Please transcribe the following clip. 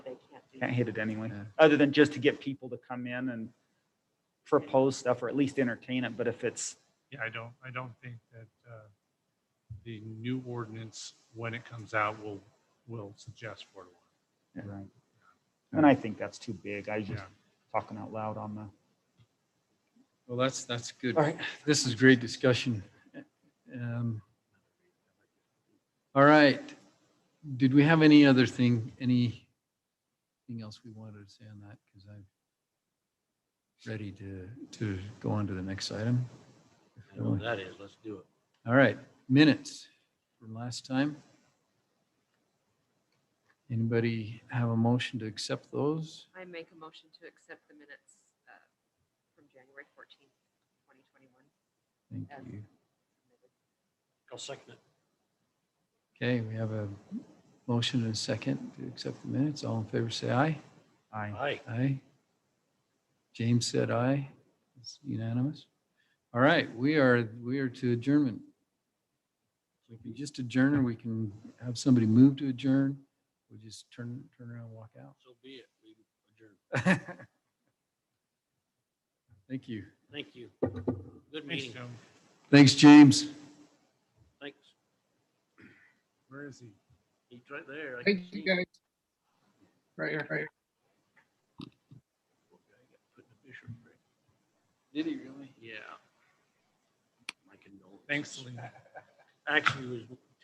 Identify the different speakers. Speaker 1: Can't hit it anyway,
Speaker 2: Yeah.
Speaker 1: other than just to get people to come in and propose stuff or at least entertain it. But if it's,
Speaker 3: Yeah, I don't, I don't think that uh, the new ordinance, when it comes out, will, will suggest Ward one.
Speaker 1: right. And I think that's too big. I was just
Speaker 3: Yeah.
Speaker 1: talking out loud on the,
Speaker 2: Well, that's, that's good.
Speaker 1: all right.
Speaker 2: This is great discussion. Um, All right. Did we have any other thing, anything else we wanted to say on that? Because I'm ready to, to go on to the next item.
Speaker 4: I know what that is. Let's do it.
Speaker 2: All right, minutes from last time. Anybody have a motion to accept those?
Speaker 5: I make a motion to accept the minutes uh, from January 14th, 2021.
Speaker 2: Thank you.
Speaker 4: I'll second it.
Speaker 2: Okay, we have a motion and a second to accept the minutes. All in favor, say aye.
Speaker 1: I,
Speaker 4: Aye.
Speaker 2: Aye. James said aye. It's unanimous. All right, we are, we are to adjournment. We can just adjourn or we can have somebody move to adjourn. We'll just turn, turn around and walk out.
Speaker 4: So be it. We adjourn.
Speaker 2: Thank you.
Speaker 4: Thank you. Good
Speaker 3: Thanks,
Speaker 4: meeting.
Speaker 3: Jim.
Speaker 2: Thanks, James.
Speaker 4: Thanks.
Speaker 3: Where is he?
Speaker 4: He's right there. I can
Speaker 6: Thank
Speaker 4: see
Speaker 6: you
Speaker 4: him.
Speaker 6: guys. Right here, right here.
Speaker 4: Put in the fish or break.
Speaker 2: Did he really?
Speaker 4: Yeah. My condolences.
Speaker 3: Thanks, Lee.
Speaker 4: Actually, it was